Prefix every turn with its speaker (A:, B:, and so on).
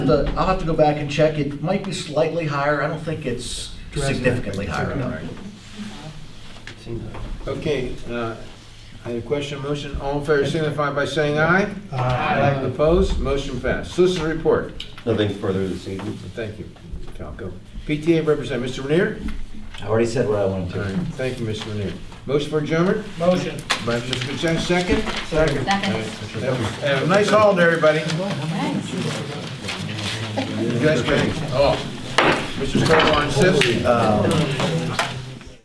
A: The- I'll have to go back and check. It might be slightly higher. I don't think it's significantly higher, no.
B: Okay, uh, I have a question, motion, all in favor signify by saying aye.
C: Aye.
B: Opposed, motion passed. Solicitor report,
D: Nothing further this evening.
B: thank you, Falco. PTA representative, Mr. Renier?
E: I already said what I wanted
B: All right,
E: to.
B: Thank you, Mr. Renier. Motion for adjournment
C: Motion.
B: by Mr. Kuchen, second.
F: Second.
B: Have a nice holiday, everybody. You guys ready? Oh, Mr. Stovall insists.
A: Um,